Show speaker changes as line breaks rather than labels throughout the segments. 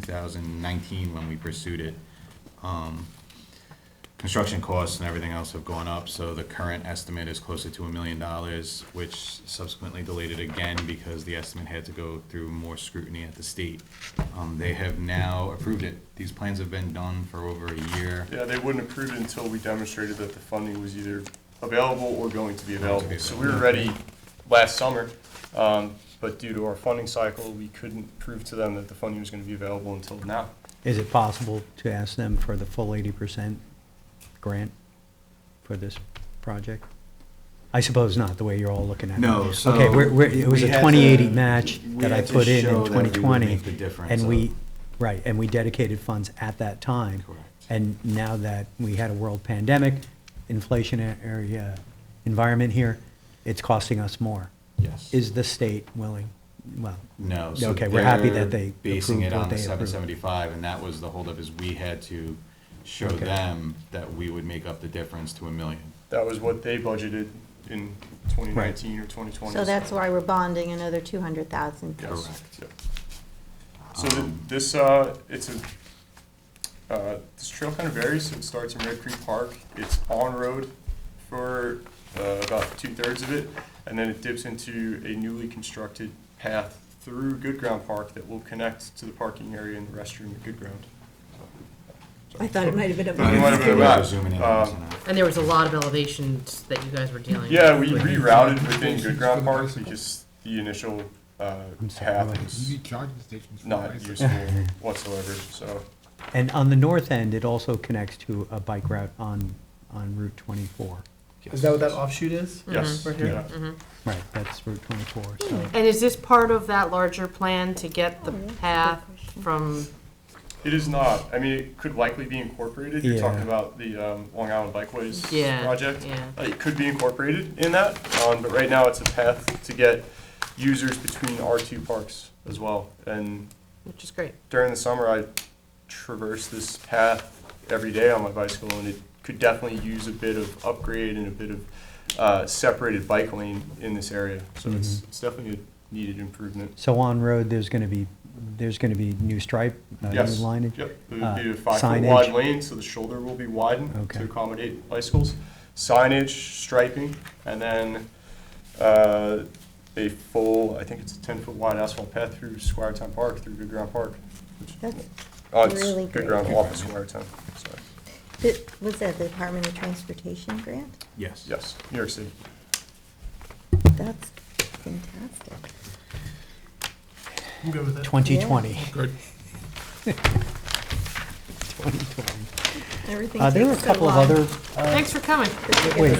2019 when we pursued it. Um, Construction costs and everything else have gone up, so the current estimate is closer to a million dollars, which subsequently delayed it again because the estimate had to go through more scrutiny at the state. Um, They have now approved it. These plans have been done for over a year.
Yeah, they wouldn't approve it until we demonstrated that the funding was either available or going to be available. So we were ready last summer, um, but due to our funding cycle, we couldn't prove to them that the funding was gonna be available until now.
Is it possible to ask them for the full eighty percent grant for this project? I suppose not, the way you're all looking at it.
No,
Okay,
so
we're, we're, it was
we
a
had to-
twenty-eighty match
we
that I
had to
put in
show that we
in
would
twenty twenty.
make the difference
And we,
of-
right, and we dedicated funds at that time.
Correct.
And now that we had a world pandemic, inflationary uh, environment here, it's costing us more.
Yes.
Is the state willing, well,
No. so
Okay, we're happy
they're
that they
Basing
approved
it
what
on the
they
seven
approved.
seventy-five, and that was the holdup, is we had to show
Okay.
them that we would make up the difference to a million.
That was what they budgeted in twenty nineteen or twenty twenty.
So that's why we're bonding another two hundred thousand.
Correct.
So th- this, uh, it's a, uh, this trail kind of varies, so it starts in Red Creek Park, it's on-road for, uh, about two-thirds of it, and then it dips into a newly constructed path through Good Ground Park that will connect to the parking area and the restroom at Good Ground.
I thought it might have been a.
Thought it might have been a
We're
map.
zooming in
Uh,
on this now.
And there was a lot of elevations that you guys were dealing with.
Yeah, we rerouted within Good Ground Park because the initial, uh,
I'm sorry,
path
what?
is
charging stations
not useful whatsoever, so.
And on the north end, it also connects to a bike route on, on Route 24.
Is that what that offshoot is?
Mm-hmm,
Yes,
Right here?
yeah.
Right, that's Route 24, so.
And is this part of that larger plan to get the path from,
It is not. I mean, it could likely be incorporated. You're
Yeah.
talking about the um, Long Island Bikeways
Yeah,
project.
yeah.
Uh, It could be incorporated in that, um, but right now it's a path to get users between our two parks as well. And
which is great.
during the summer, I traverse this path every day on my bicycle, and it could definitely use a bit of upgrade and a bit of uh, separated bike lane in this area. So it's, it's definitely a needed improvement.
So on road, there's going to be, there's going to be new stripe, uh, new
Yes.
lining?
Yep, it
uh,
would be a five-foot wide
signage.
lane, so the shoulder will be widened
Okay.
to accommodate bicycles. Signage, striping, and then uh, a full, I think it's a ten-foot wide asphalt path through Squiretown Park, through Good Ground Park. which-
That's
Oh, it's
really
Good
great.
Ground off of Squiretown, sorry.
Th- Was that the Department of Transportation grant?
Yes.
Yes, New York City.
That's fantastic.
I'm good with it.
2020.
Good.
2020.
Everything
Uh, There were a
takes so
couple of
long.
other,
Thanks for coming.
wait,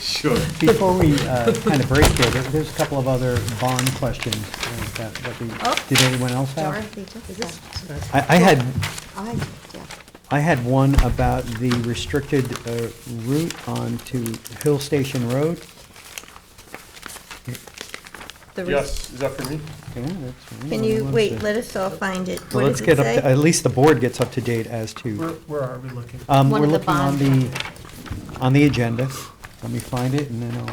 Sure.
before we uh, kind of break here, there- there's a couple of other bond questions uh, that, that we, did anyone else have?
Dorothy just left.
I, I had
I, yeah.
I had one about the restricted uh, route onto Hill Station Road.
The res-
Yes, is that for me?
Yeah, that's one
Can
I
you,
want
wait,
to-
let us all find it.
Well,
What
Let's
does it
get up, to-
say?
at least the board gets up to date as
Where,
to,
where are we looking?
um,
One
we're
of the
looking on
bond
the,
documents.
on the agenda. Let me find it and then I'll,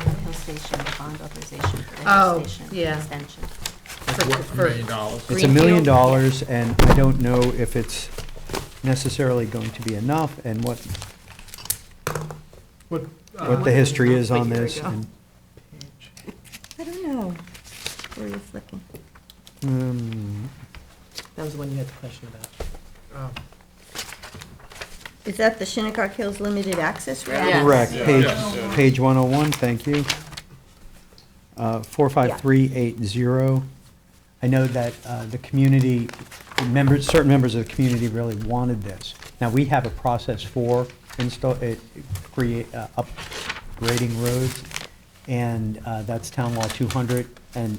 uh,
Hill Station, the bond authorization for the
Oh,
Hill Station
yeah.
extension.
For- for-
dollars.
it's a million
Greenfield?
dollars and I don't know if it's necessarily going to be enough and what,
What, uh,
what the history is
Wait,
on
here we
this.
go.
and,
I don't know. Where he's looking.
um,
That was the one you had the question about.
oh,
Is that the Shinnecock Hills Limited Access Road?
Yeah.
Correct,
Yeah.
page,
Yeah.
page 101, thank you. Uh, 45380. I know that uh, the community, members, certain members of the community really wanted this. Now, we have a process for install, it- create, uh, upgrading roads, and uh, that's Town Law 200, and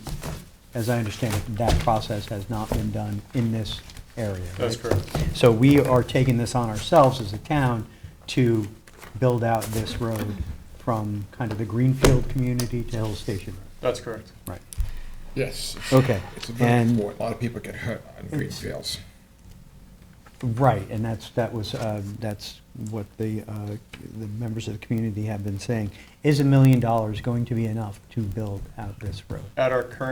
as I understand it, that process has not been done in this area.
That's
right?
correct.
So we are taking this on ourselves as a town to build out this road from kind of the Greenfield community to Hill Station
That's correct.
Road. Right.
Yes.
Okay.
It's a very
And,
important, a lot of people get hurt on green fields.
right, and that's, that was, uh, that's what the, uh, the members of the community have been saying. Is a million dollars going to be enough to build out this road?
At our current